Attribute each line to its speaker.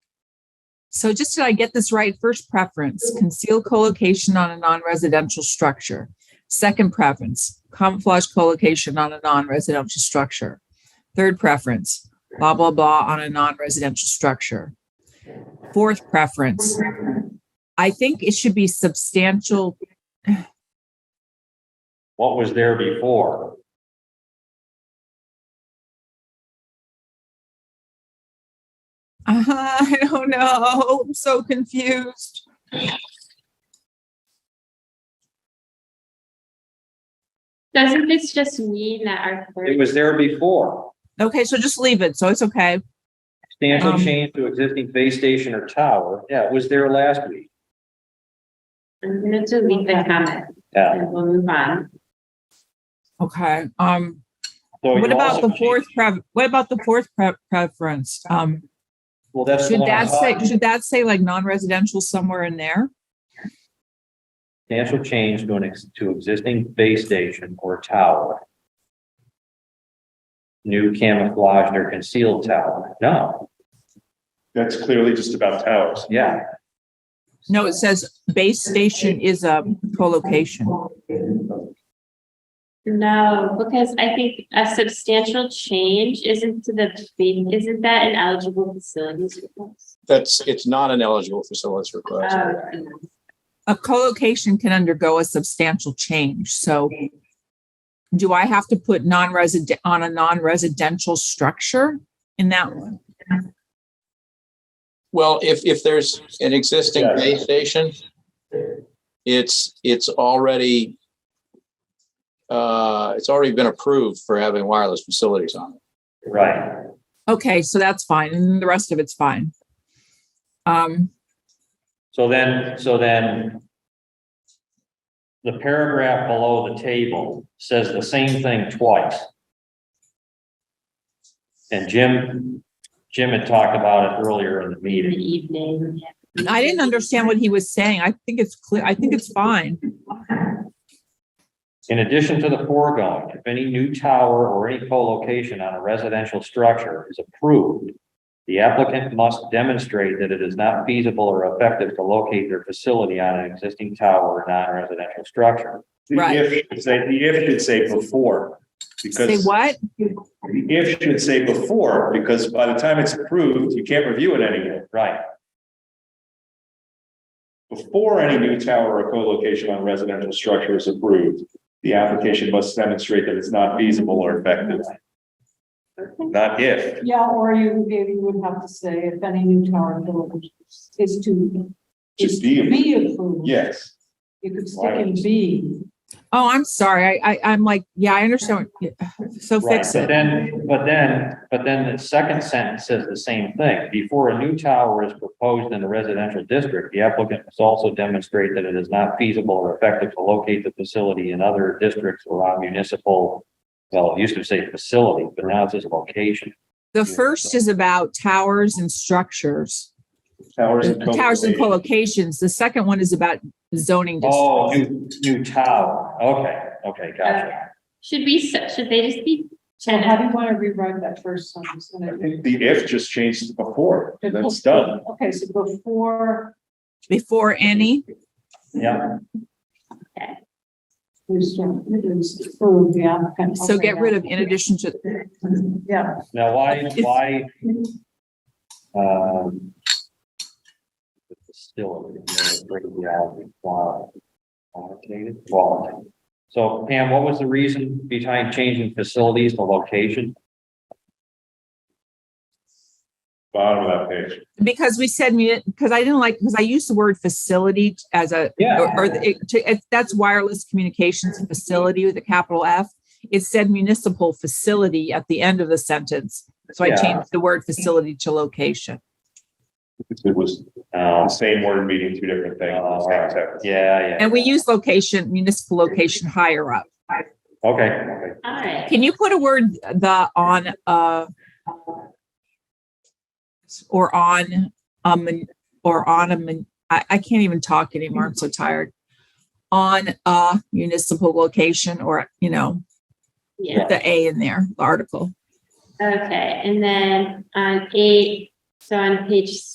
Speaker 1: So just did I get this right? First preference, concealed co-location on a non-residential structure. Second preference, camouflage co-location on a non-residential structure. Third preference, blah, blah, blah on a non-residential structure. Fourth preference, I think it should be substantial.
Speaker 2: What was there before?
Speaker 1: Uh, I don't know. I'm so confused.
Speaker 3: Doesn't this just mean that our
Speaker 2: It
Speaker 3: third,
Speaker 2: was there before.
Speaker 1: Okay, so just leave it. So it's okay.
Speaker 2: Substantial
Speaker 1: Um,
Speaker 2: change to existing base station or tower. Yeah, it was there last week.
Speaker 3: I'm gonna delete the comment
Speaker 2: Yeah.
Speaker 3: and we'll move on.
Speaker 1: Okay. Um,
Speaker 2: So
Speaker 1: What
Speaker 2: you
Speaker 1: about
Speaker 2: also
Speaker 1: the fourth pref, what about the fourth pre- preference? Um,
Speaker 2: Well, that's.
Speaker 1: should
Speaker 2: what I'm
Speaker 1: that say,
Speaker 2: talking-
Speaker 1: should that say like non-residential somewhere in there?
Speaker 2: Substantial change to an, ex- to existing base station or tower. New camouflaged or concealed tower. No,
Speaker 4: That's clearly just about towers.
Speaker 2: yeah.
Speaker 1: No, it says base station is a co-location.
Speaker 3: No, because I think a substantial change isn't to the, isn't that an eligible facilities request?
Speaker 5: That's, it's not an eligible facilities request.
Speaker 3: Oh,
Speaker 1: A co-location can undergo a substantial change, so do I have to put non-resident, on a non-residential structure in that one?
Speaker 5: Well, if, if there's an existing
Speaker 2: Yeah.
Speaker 5: base station, it's, it's already, uh, it's already been approved for having wireless facilities on it.
Speaker 2: Right.
Speaker 1: Okay, so that's fine, and then the rest of it's fine. Um,
Speaker 2: So then, so then. The paragraph below the table says the same thing twice. And Jim, Jim had talked about it earlier in the
Speaker 3: in the
Speaker 2: meeting.
Speaker 3: evening.
Speaker 1: I didn't understand what he was saying. I think it's clear, I think it's fine.
Speaker 2: In addition to the foregoing, if any new tower or any co-location on a residential structure is approved, the applicant must demonstrate that it is not feasible or effective to locate their facility on an existing tower or non-residential structure.
Speaker 4: The
Speaker 1: Right.
Speaker 4: if should say, the if should say before,
Speaker 1: Say
Speaker 4: because
Speaker 1: what?
Speaker 4: the if should say before, because by the time it's approved, you can't review it anymore.
Speaker 2: Right,
Speaker 4: Before any new tower or co-location on residential structure is approved, the application must demonstrate that it's not feasible or effective. Not if.
Speaker 6: Yeah, or you, maybe you would have to say if any new tower built is to.
Speaker 4: To
Speaker 6: is
Speaker 4: be approved.
Speaker 6: approved.
Speaker 4: Yes.
Speaker 6: You could stick in B.
Speaker 1: Oh, I'm sorry. I, I, I'm like, yeah, I understand. what- So
Speaker 2: right.
Speaker 1: fix
Speaker 2: But
Speaker 1: it.
Speaker 2: then, but then, but then the second sentence says the same thing. Before a new tower is proposed in a residential district, the applicant must also demonstrate that it is not feasible or effective to locate the facility in other districts or on municipal, well, it used to say facility, but now it says location.
Speaker 1: The first is about towers and structures, Uh,
Speaker 4: Towers and.
Speaker 1: towers and
Speaker 4: co-location.
Speaker 1: co-locations. The second one is about zoning
Speaker 2: Oh,
Speaker 1: districts.
Speaker 2: new, new tower. Okay, okay, gotcha.
Speaker 3: Should we, s- should they just be?
Speaker 6: So how do you want to rewrite that first sentence?
Speaker 4: I think The if just changes to before, that's done.
Speaker 6: Okay, so before
Speaker 1: Before any,
Speaker 2: Yeah,
Speaker 6: is approved, the applicant.
Speaker 1: so get rid of in addition to,
Speaker 6: Yeah.
Speaker 2: now why, why, um, the facility, you know, break the reality, qual- qualitative, quality. So Pam, what was the reason behind changing facilities to location?
Speaker 4: Bottom of that page.
Speaker 1: because we said, because I didn't like, because I used the word facility as a, or, or the- it- to- it- that's wireless communications facility with a capital F. It said municipal facility at the end of the sentence. So I
Speaker 2: Yeah.
Speaker 1: changed the word facility to location.
Speaker 4: It was
Speaker 2: Oh,
Speaker 4: the same word meaning two different things.
Speaker 2: Oh, all right. yeah, yeah.
Speaker 1: And we use location, municipal location higher up.
Speaker 2: Okay, okay.
Speaker 3: All right,
Speaker 1: Can you put a word the on uh or on um or on a mun- I, I can't even talk anymore. I'm so tired. On a municipal location or, you know,
Speaker 3: yeah,
Speaker 1: put the A in there, the article.
Speaker 3: okay, and then on eight, so on page